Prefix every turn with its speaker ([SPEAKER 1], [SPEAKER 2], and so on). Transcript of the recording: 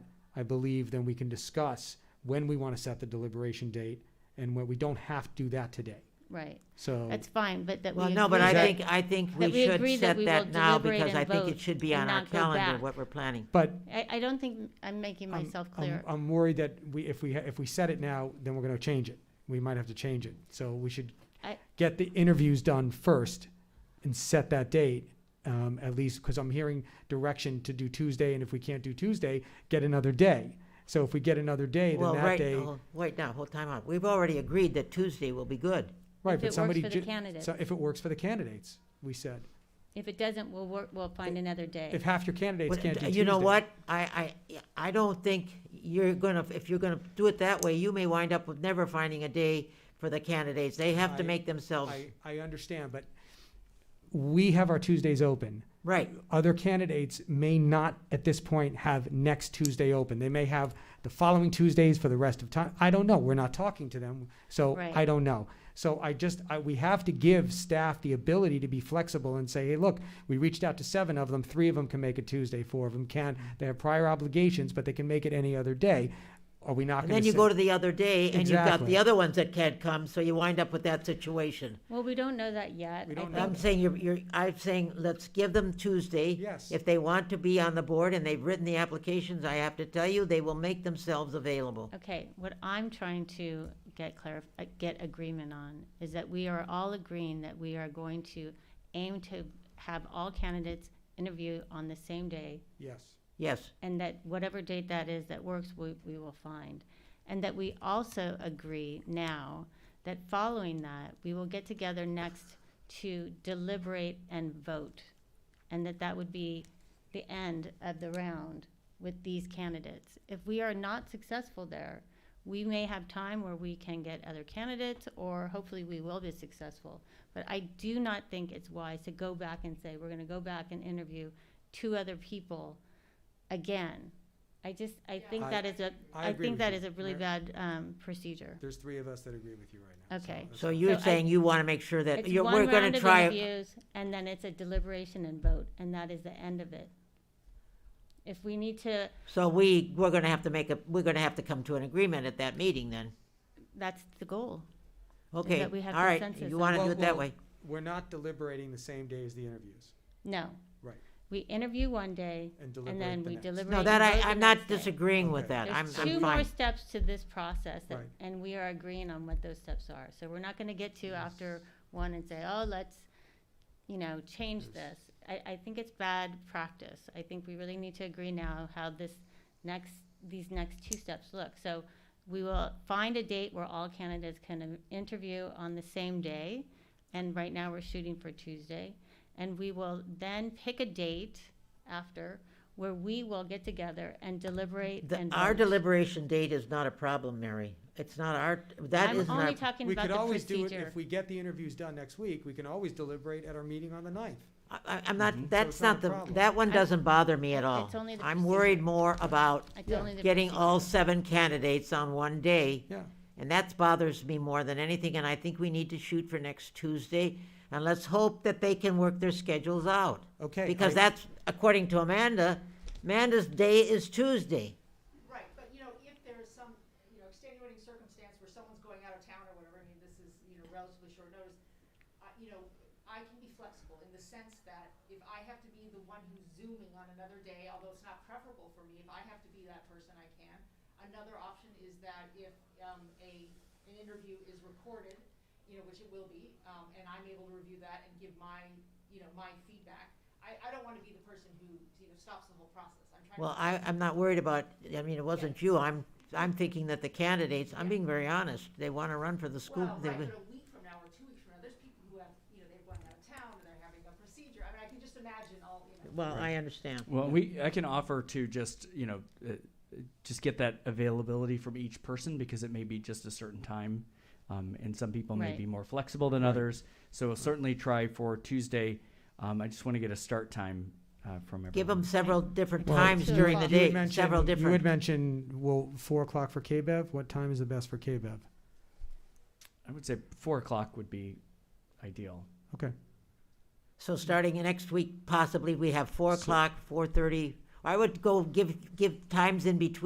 [SPEAKER 1] I believe then we can discuss when we want to set the deliberation date and when we don't have to do that today.
[SPEAKER 2] Right,
[SPEAKER 1] So,
[SPEAKER 2] that's fine, but that we.
[SPEAKER 3] Well, no, but I
[SPEAKER 1] that-
[SPEAKER 3] think, I think
[SPEAKER 2] that
[SPEAKER 3] we
[SPEAKER 2] we
[SPEAKER 3] should
[SPEAKER 2] agree that
[SPEAKER 3] set
[SPEAKER 2] we will
[SPEAKER 3] that now
[SPEAKER 2] deliberate
[SPEAKER 3] because
[SPEAKER 2] and
[SPEAKER 3] I think
[SPEAKER 2] vote
[SPEAKER 3] it should be on
[SPEAKER 2] and
[SPEAKER 3] our
[SPEAKER 2] not go back.
[SPEAKER 3] calendar, what we're planning.
[SPEAKER 1] but
[SPEAKER 2] I, I don't think I'm making
[SPEAKER 1] I'm-
[SPEAKER 2] myself
[SPEAKER 1] I'm-
[SPEAKER 2] clear.
[SPEAKER 1] I'm worried that we, if we, ha- if we set it now, then we're going to change it. We might have to change it. So we should
[SPEAKER 2] I-
[SPEAKER 1] get the interviews done first and set that date, um, at least, because I'm hearing direction to do Tuesday, and if we can't do Tuesday, get another day. So if we get another day, then
[SPEAKER 3] Well,
[SPEAKER 1] that
[SPEAKER 3] right,
[SPEAKER 1] day,
[SPEAKER 3] oh, wait now, hold time out. We've already agreed that Tuesday will be good.
[SPEAKER 1] right,
[SPEAKER 2] If it
[SPEAKER 1] but
[SPEAKER 2] works
[SPEAKER 1] somebody.
[SPEAKER 2] for the
[SPEAKER 1] ju-
[SPEAKER 2] candidate.
[SPEAKER 1] So if it works for the candidates, we said.
[SPEAKER 2] If it doesn't, we'll work, we'll find another day.
[SPEAKER 1] If half your candidates
[SPEAKER 3] But
[SPEAKER 1] can't do Tuesday.
[SPEAKER 3] You know what? I, I, I don't think you're gonna, if you're gonna do it that way, you may wind up with never finding a day for the candidates. They have to
[SPEAKER 1] I-
[SPEAKER 3] make themselves,
[SPEAKER 1] I, I understand, but we have our Tuesdays open.
[SPEAKER 3] right.
[SPEAKER 1] Other candidates may not at this point have next Tuesday open. They may have the following Tuesdays for the rest of time. I don't know. We're not talking to them, so
[SPEAKER 2] Right.
[SPEAKER 1] I don't know. So I just, I, we have to give staff the ability to be flexible and say, hey, look, we reached out to seven of them. Three of them can make it Tuesday. Four of them can. They have prior obligations, but they can make it any other day. Are we not
[SPEAKER 3] And
[SPEAKER 1] going to?
[SPEAKER 3] then you go to the other day and you've got
[SPEAKER 1] Exactly.
[SPEAKER 3] the other ones that can't come, so you wind up with that situation.
[SPEAKER 2] Well, we don't know that yet.
[SPEAKER 1] We
[SPEAKER 2] I
[SPEAKER 1] don't know.
[SPEAKER 3] I'm
[SPEAKER 2] think-
[SPEAKER 3] saying you're, you're, I'm saying let's give them Tuesday.
[SPEAKER 1] Yes.
[SPEAKER 3] If they want to be on the board and they've written the applications, I have to tell you, they will make themselves available.
[SPEAKER 2] Okay, what I'm trying to get clarif, uh, get agreement on is that we are all agreeing that we are going to aim to have all candidates interview on the same day
[SPEAKER 1] Yes.
[SPEAKER 3] Yes,
[SPEAKER 2] and that whatever date that is that works, we, we will find. And that we also agree now that following that, we will get together next to deliberate and vote. And that that would be the end of the round with these candidates. If we are not successful there, we may have time where we can get other candidates, or hopefully we will be successful. But I do not think it's wise to go back and say, we're gonna go back and interview two other people again. I just, I think
[SPEAKER 1] I-
[SPEAKER 2] that is a,
[SPEAKER 1] I
[SPEAKER 2] I
[SPEAKER 1] agree
[SPEAKER 2] think
[SPEAKER 1] with
[SPEAKER 2] that
[SPEAKER 1] you,
[SPEAKER 2] is a really
[SPEAKER 1] Mary.
[SPEAKER 2] bad, um, procedure.
[SPEAKER 1] There's three of us that agree with you right
[SPEAKER 2] now, so Okay.
[SPEAKER 3] so you're
[SPEAKER 2] So I-
[SPEAKER 3] saying you want to make sure that
[SPEAKER 2] It's
[SPEAKER 3] you're, we're
[SPEAKER 2] one
[SPEAKER 3] going
[SPEAKER 2] round
[SPEAKER 3] to
[SPEAKER 2] of
[SPEAKER 3] try.
[SPEAKER 2] interviews, and then it's a deliberation and vote, and that is the end of it. If we need to,
[SPEAKER 3] So we, we're going to have to make a, we're going to have to come to an agreement at that meeting then.
[SPEAKER 2] that's the goal.
[SPEAKER 3] Okay, all
[SPEAKER 2] that we have
[SPEAKER 3] right,
[SPEAKER 2] consensus
[SPEAKER 3] you
[SPEAKER 2] on
[SPEAKER 3] want to
[SPEAKER 1] Well,
[SPEAKER 3] do it that
[SPEAKER 1] well-
[SPEAKER 3] way.
[SPEAKER 1] We're not deliberating the same day as the interviews
[SPEAKER 2] No.
[SPEAKER 1] Right.
[SPEAKER 2] We interview one day,
[SPEAKER 1] and
[SPEAKER 2] and then we
[SPEAKER 1] deliberate the next.
[SPEAKER 2] deliberate.
[SPEAKER 3] No,
[SPEAKER 2] and
[SPEAKER 3] that
[SPEAKER 2] vote
[SPEAKER 3] I,
[SPEAKER 2] the
[SPEAKER 3] I'm not
[SPEAKER 2] next day.
[SPEAKER 3] disagreeing with
[SPEAKER 1] Okay.
[SPEAKER 3] that. I'm,
[SPEAKER 2] There's
[SPEAKER 3] I'm
[SPEAKER 2] two more
[SPEAKER 3] fine.
[SPEAKER 2] steps to this process, that-
[SPEAKER 1] Right.
[SPEAKER 2] and we are agreeing on what those steps are. So we're not gonna get to after one and say, oh, let's, you know, change this. I, I think it's bad practice. I think we really need to agree now how this next, these next two steps look. So we will find a date where all candidates can interview on the same day, and right now we're shooting for Tuesday. And we will then pick a date after where we will get together and deliberate
[SPEAKER 3] The-
[SPEAKER 2] and
[SPEAKER 3] Our
[SPEAKER 2] vote.
[SPEAKER 3] deliberation date is not a problem, Mary. It's not our, that isn't
[SPEAKER 2] I'm
[SPEAKER 3] our.
[SPEAKER 2] only talking
[SPEAKER 1] We
[SPEAKER 2] about
[SPEAKER 1] could
[SPEAKER 2] the
[SPEAKER 1] always do it,
[SPEAKER 2] procedure.
[SPEAKER 1] if we get the interviews done next week, we can always deliberate at our meeting on the ninth.
[SPEAKER 3] I- I, I'm not,
[SPEAKER 1] it's
[SPEAKER 3] that's
[SPEAKER 1] not a
[SPEAKER 3] not the,
[SPEAKER 1] problem.
[SPEAKER 3] that one
[SPEAKER 2] I-
[SPEAKER 3] doesn't bother me at all.
[SPEAKER 2] It's only the
[SPEAKER 3] I'm worried
[SPEAKER 2] procedure.
[SPEAKER 3] more about
[SPEAKER 2] It's
[SPEAKER 1] yeah.
[SPEAKER 2] only the
[SPEAKER 3] getting all
[SPEAKER 2] procedure.
[SPEAKER 3] seven candidates on one day.
[SPEAKER 1] Yeah.
[SPEAKER 3] And that bothers me more than anything, and I think we need to shoot for next Tuesday. And let's hope that they can work their schedules out.
[SPEAKER 1] Okay,
[SPEAKER 3] Because
[SPEAKER 1] I-
[SPEAKER 3] that's, according to Amanda, Amanda's day is Tuesday.
[SPEAKER 4] Right, but you know, if there's some, you know, extenuating circumstance where someone's going out of town or whatever, I mean, this is, you know, relatively short notice. I, you know, I can be flexible in the sense that if I have to be the one who's zooming on another day, although it's not preferable for me, if I have to be that person, I can. Another option is that if, um, a, an interview is recorded, you know, which it will be, um, and I'm able to review that and give my, you know, my feedback. I, I don't wanna be the person who, you know, stops the whole process. I'm trying to.
[SPEAKER 3] Well, I, I'm not worried about, I mean, it wasn't you, I'm, I'm thinking that the candidates, I'm being very honest, they wanna run for the school.
[SPEAKER 4] Well,
[SPEAKER 3] they-
[SPEAKER 4] right, but a week from now or two weeks from now, there's people who have, you know, they've gone out of town and they're having a procedure. I mean, I can just imagine all, you know.
[SPEAKER 3] Well, I understand.
[SPEAKER 5] Well, we I can offer to just you know uh, just get that availability from each person because it may be just a certain time, um, and some people may
[SPEAKER 2] Right.
[SPEAKER 5] be more flexible than others. So we'll certainly try for Tuesday. Um, I just want to get a start time uh, from everyone.
[SPEAKER 3] Give them several different
[SPEAKER 1] Well,
[SPEAKER 3] times
[SPEAKER 2] Two
[SPEAKER 3] during the
[SPEAKER 2] o'clock.
[SPEAKER 1] You had
[SPEAKER 3] day,
[SPEAKER 1] mentioned-
[SPEAKER 3] several
[SPEAKER 1] You had
[SPEAKER 3] different,
[SPEAKER 1] mentioned, well, four o'clock for KBEV, what time is the best for KBEV?
[SPEAKER 5] I would say four o'clock would be ideal.
[SPEAKER 1] Okay,
[SPEAKER 3] so starting next week, possibly, we have four
[SPEAKER 5] So-
[SPEAKER 3] o'clock, four thirty. I would go give, give times in between